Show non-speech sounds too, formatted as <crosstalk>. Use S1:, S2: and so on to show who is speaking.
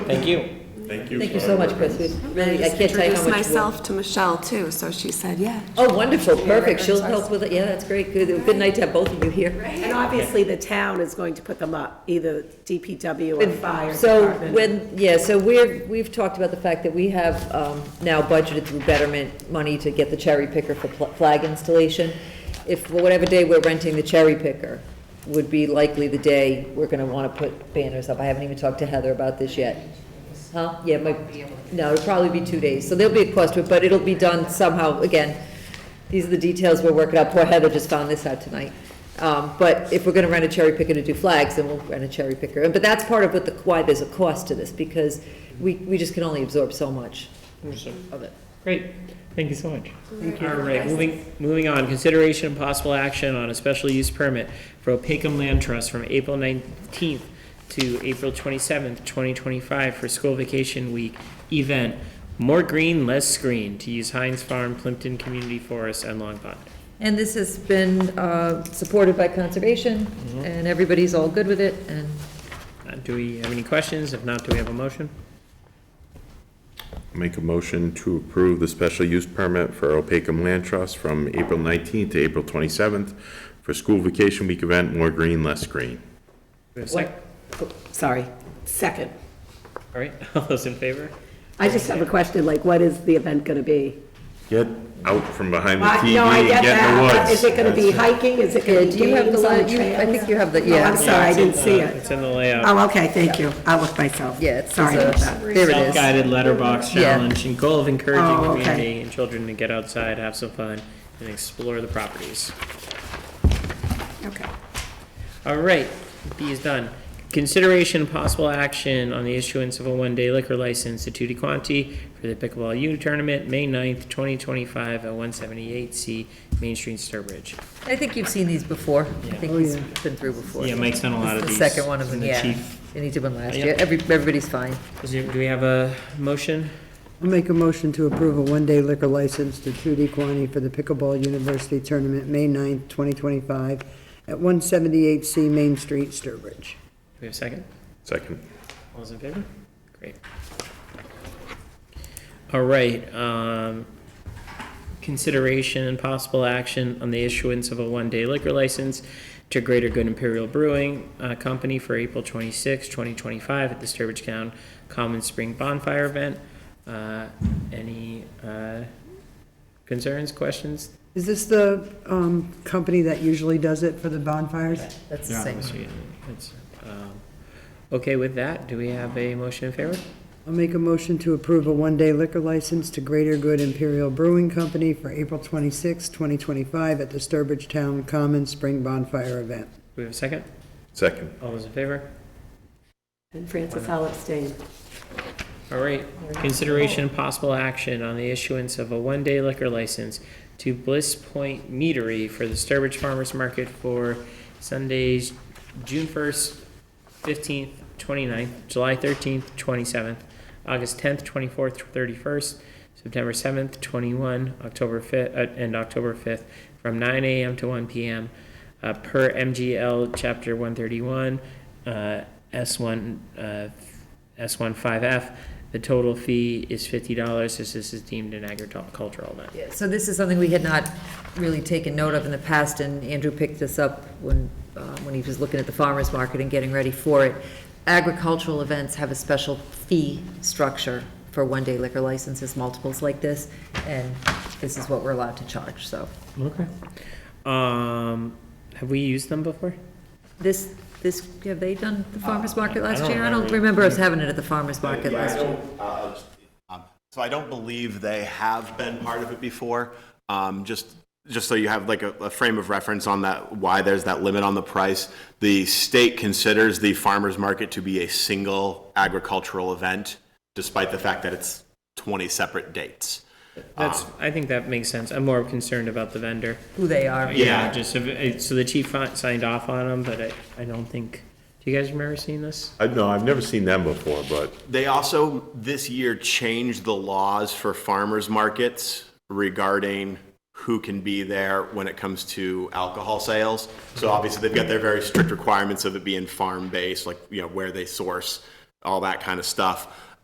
S1: Thank you.
S2: Thank you.
S3: Thank you so much, Chris. We really, I can't tell you how much.
S4: Introduced
S3: work-
S4: myself to Michelle too, so she said, yeah.
S3: Oh, wonderful,
S4: Yeah,
S3: perfect. She'll
S4: records are-
S3: help with it. Yeah, that's great. Good, good night to have both of you here.
S5: And obviously, the town is going to put them up, either DPW or fire
S3: So
S5: department.
S3: when, yeah, so we're, we've talked about the fact that we have um, now budgeted through betterment money to get the cherry picker for pl- flag installation. If, whatever day we're renting the cherry picker would be likely the day we're gonna wanna put banners up. I haven't even talked to Heather about this yet. Huh? Yeah, it might, no, it'll probably be two days, so there'll be a cost to it, but it'll be done somehow, again, these are the details we're working out, poor Heather just found this out tonight. Um, but if we're gonna rent a cherry picker to do flags, then we'll rent a cherry picker, but that's part of what the, why there's a cost to this, because we, we just can only absorb so much of it.
S1: Great, thank you so much. All right, moving, moving on, consideration and possible action on a special use permit for Opakam Land Trust from April nineteenth to April twenty-seventh, twenty twenty-five for school vacation week event. More green, less screen, to use Heinz Farm, Plimpton Community Forest, and Long Pond.
S3: And this has been, uh, supported by conservation, and everybody's all good with it, and
S1: Uh, Do we have any questions? If not, do we have a motion?
S2: Make a motion to approve the special use permit for Opakam Land Trust from April 19th to April 27th for school vacation week event, more green, less green.
S1: Do we have a sec-
S5: Sorry, second.
S1: All right, <laughs> all those in favor?
S5: I just have a question, like, what is the event going to be?
S2: Get out from behind the
S5: I-
S2: TV
S5: no, I
S2: and
S5: get
S2: get in the
S5: that.
S2: woods.
S5: Is it going to be hiking? Is it
S3: Yeah,
S5: going to
S3: do
S5: be
S3: you have the,
S5: games on the
S3: li- you- I
S5: trails?
S3: think you have the,
S5: Oh, I'm
S3: yeah,
S5: sorry, I
S1: It's in
S5: didn't see
S1: the-
S5: it.
S1: It's in the layout.
S5: Oh, okay, thank you. I looked myself.
S3: yeah, it's,
S5: Sorry about
S3: it's a-
S5: that.
S3: there it is.
S1: Self-guided letterbox
S3: Yeah.
S1: challenge and goal of encouraging
S5: Oh, okay.
S1: community and children to get outside, have some fun, and explore the properties.
S5: Okay.
S1: All right, B is done. Consideration and possible action on the issuance of a one-day liquor license to Tutti Quanti for the pickleball U tournament, May 9th, twenty twenty-five at one seventy-eight C Main Street, Sturbridge.
S3: I think you've seen these before. I
S1: Yeah.
S3: think he's been through before.
S1: Yeah, Mike's done a lot
S3: This
S1: of
S3: is
S1: these.
S3: The second one of
S1: and the
S3: them, yeah.
S1: chief-
S3: And he did one last
S1: Yeah.
S3: year. Every, everybody's fine.
S1: is there- Do we have a motion?
S6: I'll Make a motion to approve a one-day liquor license to Trudy Quani for the Pickleball University Tournament, May 9th, 2025, at 178C Main Street, Sturbridge.
S1: Do we have a second?
S2: Second.
S1: All those in favor? Great. All right, um, consideration and possible action on the issuance of a one-day liquor license to Greater Good Imperial Brewing uh, Company for April 26, 2025 at the Sturbridge Town Common Spring Bonfire Event. Uh, Any uh, concerns, questions?
S6: Is this the um, company that usually does it for the bonfires?
S3: That's the same.
S1: Obviously, it's, um, Okay, with that, do we have a motion in favor?
S6: I'll make a motion to approve a one-day liquor license to Greater Good Imperial Brewing Company for April 26th, 2025, at the Sturbridge Town Common Spring Bonfire Event.
S1: Do we have a second?
S2: Second.
S1: All those in favor?
S5: And Francis, I'll abstain.
S1: All right, consideration and possible action on the issuance of a one-day liquor license to Bliss Point Meadery for the Sturbridge Farmers Market for Sundays, June first, fifteenth, 29th, July thirteenth, twenty-seventh, August tenth, twenty-fourth, thirty-first, September seventh, twenty-one, October fifth, uh, and October fifth, from nine AM to one PM, uh, per MGL Chapter one thirty-one, uh, S one, uh, S one five F. The total fee is fifty dollars, as this is deemed an agricultural event.
S3: Yeah, So this is something we had not really taken note of in the past, and Andrew picked this up when, uh, when he was looking at the farmer's market and getting ready for it. Agricultural events have a special fee structure for one-day liquor licenses, multiples like this, and this is what we're allowed to charge, so.
S1: Okay. Um, have we used them before?
S3: This, this, have they done the farmer's market
S1: I
S3: last
S1: don't
S3: year? I don't
S1: remember.
S3: remember us having it at the farmer's market
S7: Yeah, I
S3: last year.
S7: don't, uh, um, So I don't believe they have been part of it before. Um, Just, just so you have like a a frame of reference on that, why there's that limit on the price. The state considers the farmer's market to be a single agricultural event, despite the fact that it's 20 separate dates.
S1: That's, I think that makes sense. I'm more concerned about the vendor.
S3: Who they are.
S7: Yeah.
S1: Just, if it- so the chief fi- signed off on them, but I, I don't think, do you guys remember seeing this?
S2: I, no, I've never seen them before, but
S7: They also, this year, changed the laws for farmers markets regarding who can be there when it comes to alcohol sales. So obviously, they've got their very strict requirements of it being farm-based, like, you know, where they source. all that kind of stuff.